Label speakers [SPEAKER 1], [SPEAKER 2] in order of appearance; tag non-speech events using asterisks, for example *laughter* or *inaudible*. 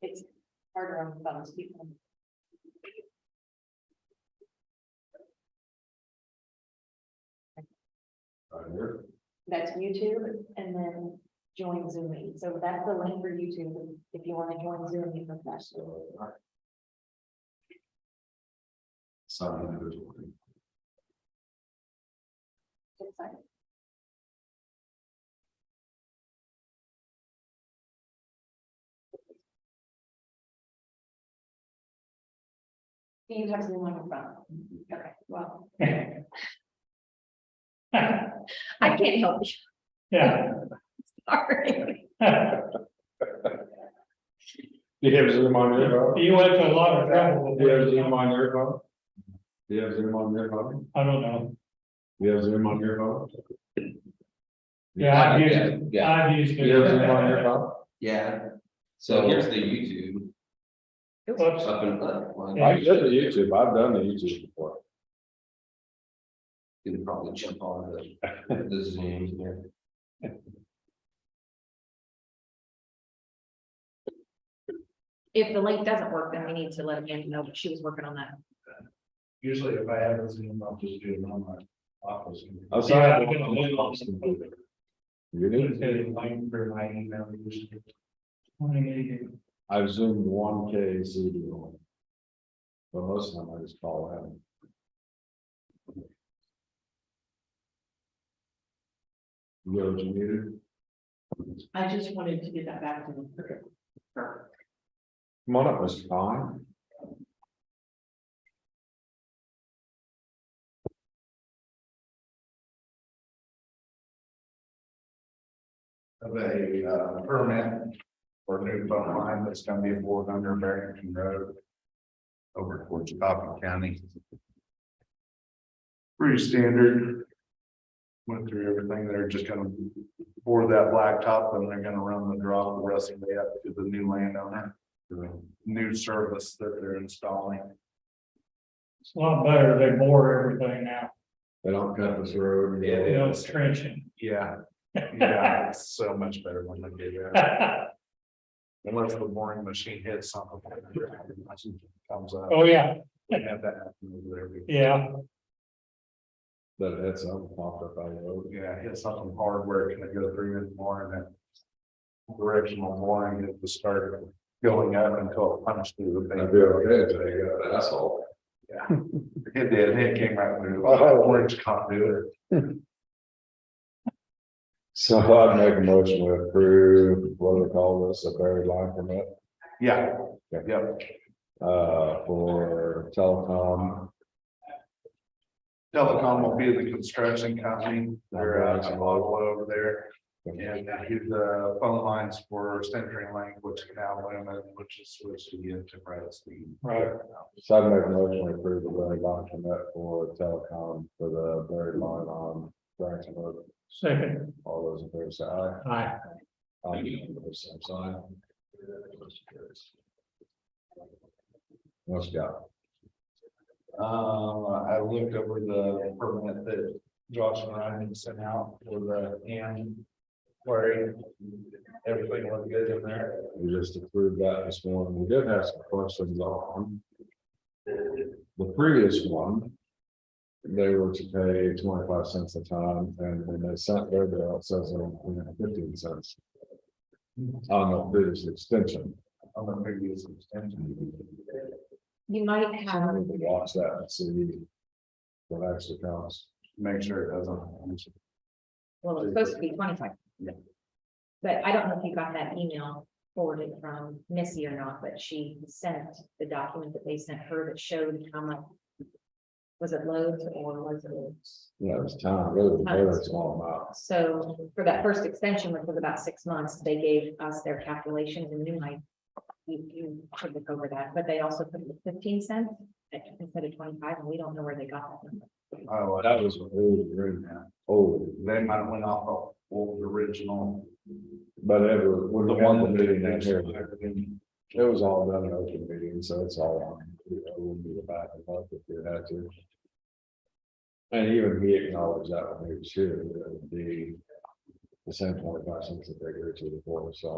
[SPEAKER 1] It's harder on phones, people.
[SPEAKER 2] Right here.
[SPEAKER 1] That's YouTube and then join Zoom meeting. So that's the link for YouTube if you want to join Zoom meeting professional.
[SPEAKER 2] So, all right. Some individual.
[SPEAKER 1] It's like, Do you have Zoom on your phone? Okay, well, I can't help you.
[SPEAKER 3] Yeah.
[SPEAKER 1] Sorry.
[SPEAKER 2] Do you have Zoom on your phone?
[SPEAKER 3] You went to a lot of trouble.
[SPEAKER 2] Do you have Zoom on your phone? Do you have Zoom on your phone?
[SPEAKER 3] I don't know.
[SPEAKER 2] Do you have Zoom on your phone?
[SPEAKER 3] Yeah, I've used it.
[SPEAKER 4] Yeah,
[SPEAKER 3] I've used
[SPEAKER 2] Do you have Zoom on your
[SPEAKER 3] it.
[SPEAKER 2] phone?
[SPEAKER 4] yeah. So here's the YouTube
[SPEAKER 3] Whoops.
[SPEAKER 4] up and up. Well,
[SPEAKER 3] Yeah.
[SPEAKER 2] I did the YouTube, I've done the YouTube before.
[SPEAKER 4] You can probably jump on the, the Zoom here.
[SPEAKER 1] If the link doesn't work, then we need to let Amanda know, but she was working on that.
[SPEAKER 5] Usually if I have a Zoom, I'll just do it on my office.
[SPEAKER 2] I was
[SPEAKER 3] Yeah,
[SPEAKER 2] like,
[SPEAKER 3] we can look on some-
[SPEAKER 2] You
[SPEAKER 5] It's
[SPEAKER 2] did?
[SPEAKER 5] a link for my email. usually.
[SPEAKER 2] I've zoomed one K C D on. But most of them I just call out. You know what you needed?
[SPEAKER 1] I just wanted to get that back to the.
[SPEAKER 2] Come on up, Mr. Fine.
[SPEAKER 5] Of a uh, permit for a new phone line that's gonna be aboard under Barrington Road. Over towards Coffin County. Pretty standard. Went through everything. They're just gonna bore that blacktop and they're gonna run the draw the rest of the way up to the new landowner. The new service that they're installing.
[SPEAKER 3] It's a lot better. They bore everything now.
[SPEAKER 2] They don't cut this road.
[SPEAKER 5] Yeah,
[SPEAKER 3] They don't trenching. *laughs*
[SPEAKER 5] Yeah, yeah, it's so much better when they do that.
[SPEAKER 3] Oh,
[SPEAKER 5] Unless the boring machine hits something. Comes up,
[SPEAKER 3] Oh, yeah,
[SPEAKER 5] we have that happen over there. We-
[SPEAKER 3] yeah.
[SPEAKER 2] But it's up, popped up by the road.
[SPEAKER 5] Yeah, hit something hard where it can go through and more and then. Directional boring it was started going up until it punched through the
[SPEAKER 2] I'd
[SPEAKER 5] thing.
[SPEAKER 2] be okay if they got an asshole.
[SPEAKER 5] It did, it came right through,
[SPEAKER 2] Oh.
[SPEAKER 5] orange conduit.
[SPEAKER 2] So I'd make a motion to approve, what do they call this, a buried line permit,
[SPEAKER 5] Yeah,
[SPEAKER 2] Yeah.
[SPEAKER 5] yep.
[SPEAKER 2] uh, for telecom.
[SPEAKER 5] Telecom will be the construction company. They're out of Ottawa over there. And I do the phone lines for Century Link, which is now Lumen, which is switched to get to Bradstein.
[SPEAKER 3] Right.
[SPEAKER 2] So I'd make a motion to approve the buried line permit for telecom for the um, buried line on Branson Road.
[SPEAKER 3] Second,
[SPEAKER 2] All those in favor say
[SPEAKER 5] uh,
[SPEAKER 2] aye.
[SPEAKER 3] aye.
[SPEAKER 2] Aye, opposed, same sign. What's got?
[SPEAKER 5] Um, I looked over the permit that Josh and Ryan sent out for the and query. Everything looked good in there.
[SPEAKER 2] We just approved that this morning. We did have some questions on. The previous one. They were to pay twenty-five cents a ton and when they sent their bill, it says they're only fifteen cents. On the previous extension.
[SPEAKER 5] I'm gonna figure this extension.
[SPEAKER 1] You might
[SPEAKER 2] I
[SPEAKER 1] have,
[SPEAKER 2] need to watch that and see. What actually counts.
[SPEAKER 5] Make sure it doesn't.
[SPEAKER 1] well, it's supposed to be twenty-five.
[SPEAKER 5] Yeah.
[SPEAKER 1] But I don't know if you got that email forwarded from Missy or not, but she sent the document that they sent her that showed how much. Was it loads or was it?
[SPEAKER 2] Yeah, it's time, really, very small amount.
[SPEAKER 1] So for that first extension, which was about six months, they gave us their calculations and you might. You, you could look over that, but they also put the fifteen cents instead of twenty-five and we don't know where they got that. number.
[SPEAKER 5] Oh,
[SPEAKER 2] That was an old agreement. old,
[SPEAKER 5] they might have went off of old original.
[SPEAKER 2] but it was, when
[SPEAKER 5] The
[SPEAKER 2] the
[SPEAKER 5] one
[SPEAKER 2] one
[SPEAKER 5] that
[SPEAKER 2] meeting
[SPEAKER 5] they
[SPEAKER 2] that here.
[SPEAKER 5] did.
[SPEAKER 2] It was all done in open meeting, so it's all on, you know, it wouldn't be a back and forth if you had to. And even he acknowledged that when he was here, that it would be the same point, I think, that they agreed to before, so.